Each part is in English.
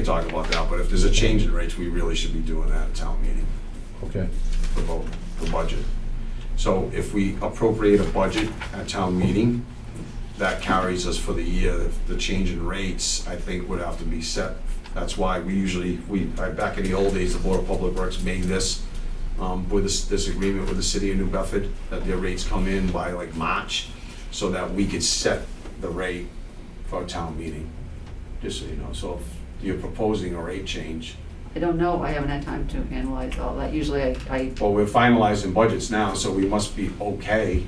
can talk about that, but if there's a change in rates, we really should be doing that at town meeting Okay, for both, the budget. So if we appropriate a budget at town meeting, that carries us for the year. If The change in rates, I think, would have to be set. That's why we usually, we, I- back in the old days, the Board of Public Works made this, um, with this, this agreement with the city of New Bedford, that their rates come in by like March, so that we could set the rate for a town meeting, just so you know. So if you're proposing a rate change, I don't know, I haven't had time to analyze all that, usually I, I, Well, we're finalizing budgets now, so we must be okay.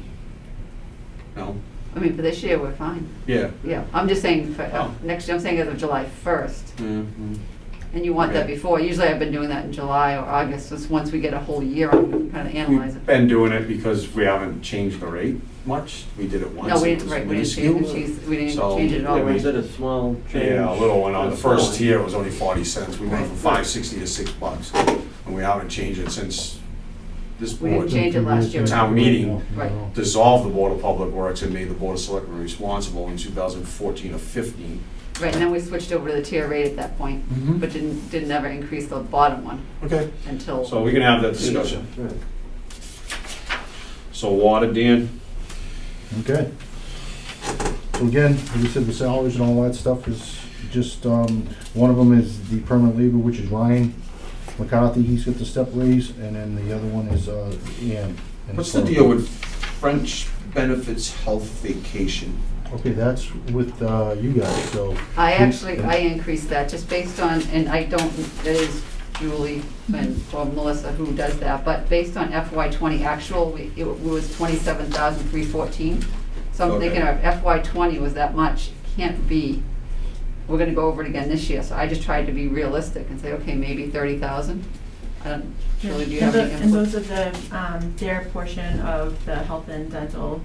No? I mean, for this year, we're fine, Yeah. yeah, I'm just saying, for, uh, Oh. next, I'm saying as of July first, Mm-hmm. Mhm. and you want that Okay. before, usually I've been doing that in July or August, just once we get a whole year, I can kind of analyze We've it. been doing it because we haven't changed the rate much. We did it once. No, we it didn't, was right, we didn't change, minuscule. it. we didn't So, change it at all, yeah, we right? did a small Yeah, a little one. On the first year. tier, it was only forty cents. We went from Right. five sixty to six bucks. And we haven't changed it since this We didn't board change it last year. Town meeting. Right. dissolved the Board of Public Works and made the Board of Selectmen responsible in two thousand fourteen or fifteen. Right, and then we switched over to the tier rate at that point, Mhm. Mm-hmm. but didn't, didn't ever increase the bottom one Okay. until. So we can have that discussion. So water, Dan? Mm-hmm. okay. So again, like you said, the salaries and all that stuff is just, um, one of them is the permanent labor, which is Ryan McCarthy, he's got the step raise, and then the other one is, uh, Ian. And What's the so- deal with French benefits health vacation? Okay, that's with, uh, you guys, so. I Please, actually, yeah. I increased that just based on, and I don't, that is Julie and, or Melissa who does that, but based on FY twenty actual, we- it was twenty-seven thousand three fourteen. So I'm Okay. thinking of FY twenty was that much, can't be, we're gonna go over it again this year, so I just tried to be realistic and say, okay, maybe thirty thousand. I don't, Julie, do you have And any tho- input? And those are the, um, their portion of the health and dental,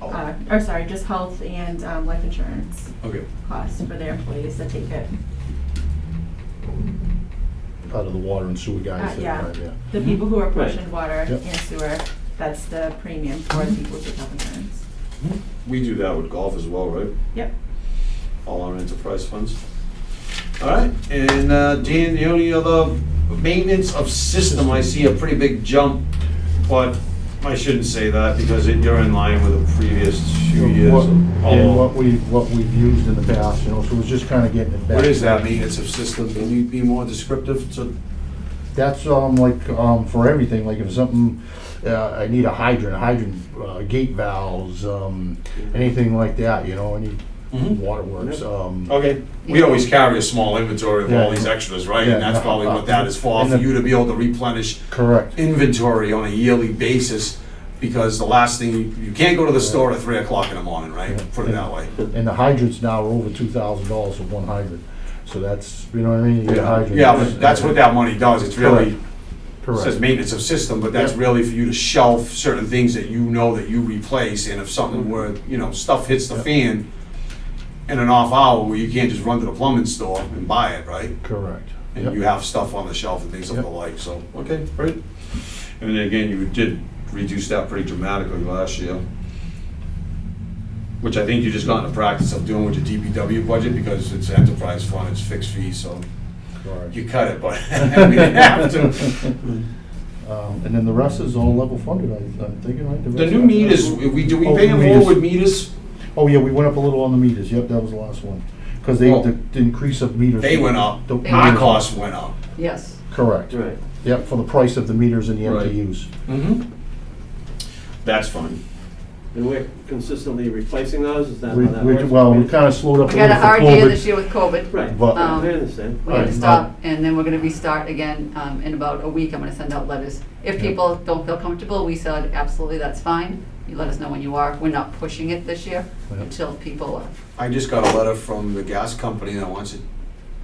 uh, Oh, or sorry, just health and, um, life insurance Okay. costs for their employees that take it. Out of the water and sewer guys. Uh, that yeah. are there. The people who are Right. portioned water Yep. and sewer, that's the premium for the people who take health insurance. We do that with golf as well, right? Yep. All our enterprise funds. All right, and uh, Dan, the only other maintenance of system, I see a pretty big jump, but I shouldn't say that because it- you're in line with the previous few years. What- And Oh. what we, what we've used in the past, you know, so it's just kinda getting it back. What is that maintenance of system? Can you be more descriptive to That's um like um for everything. Like if something, uh, I need a hydrant, a hydrant uh, gate valves, um, anything like that. You know, any Mm-hmm. waterworks. Um, Okay. We always carry a small inventory of all Yeah. these extras, right? And Yeah. that's probably what that is for, And for the- you to be able to replenish correct. inventory on a yearly basis. Because the last thing, you- you can't go to the store at three o'clock in the morning, right? Yeah. Put it that way. And the hydrants now are over two thousand dollars for one hydrant. So that's you know what I mean. You get a hydrant. Yeah, but that's what that money does. It's really, it Correct. says maintenance of system, but that's Yeah. really for you to shelf certain things that you know that you replace. And if something were, you know, stuff hits the Mm-hmm. Yeah. fan in an off hour where you can't just run to the plumbing store and buy it, right? correct. and you have stuff on the shelf and things of the Yep. like, so, okay, great. And then again, you did reduce that pretty dramatically last year, which I think you just got in the practice of doing with your DPW budget, because it's enterprise fund, it's fixed fee, so correct. you cut it, but we didn't have to. Um, and then the rest is all level funded. I, I'm thinking right. The rest- new meters, we, do we Oh, pay new them more meters. with meters? Oh yeah, we went up a little on the meters. Yep, that was the last one. Because they Oh. the, the increase of meters. They went up, The- our costs went up. Yes, Correct. Right. Yep, for the price of the meters and the Right. MTUs. Mm-hmm. That's fine. And we're consistently replacing those, is that how We, that we, works? well, we kind of slowed up we a got little a for hard year this COVID. year with COVID. Right, But- I Um, understand. We had to Alright, stop, and then we're gonna restart again um, in about a week. I'm gonna send out letters. If Yeah. people don't feel comfortable, we said, absolutely, that's fine. You let us know when you are. We're not pushing it this year Yeah. until people are. I just got a letter from the gas company that wants to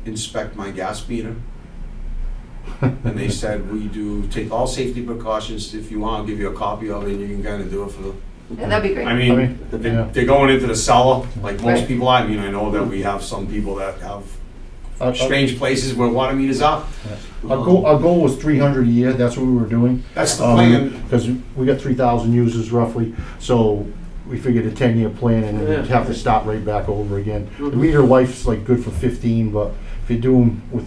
inspect my gas meter. And they said, we do take all safety precautions, if you want, I'll give you a copy of it, and you can kinda do it for the. Yeah, that'd be great. I I mean, mean, they- yeah. they're going into the cellar, like most Right. people, I mean, I know that we have some people that have Uh, Our- our- strange places where water meters are. Our goal, our goal was three hundred a year, that's what we were doing. That's the um, plan. Because we got three thousand users roughly, so we figured a ten-year plan and then you'd have to stop right back over again. The Mhm. meter life's like good for fifteen, but if you do them with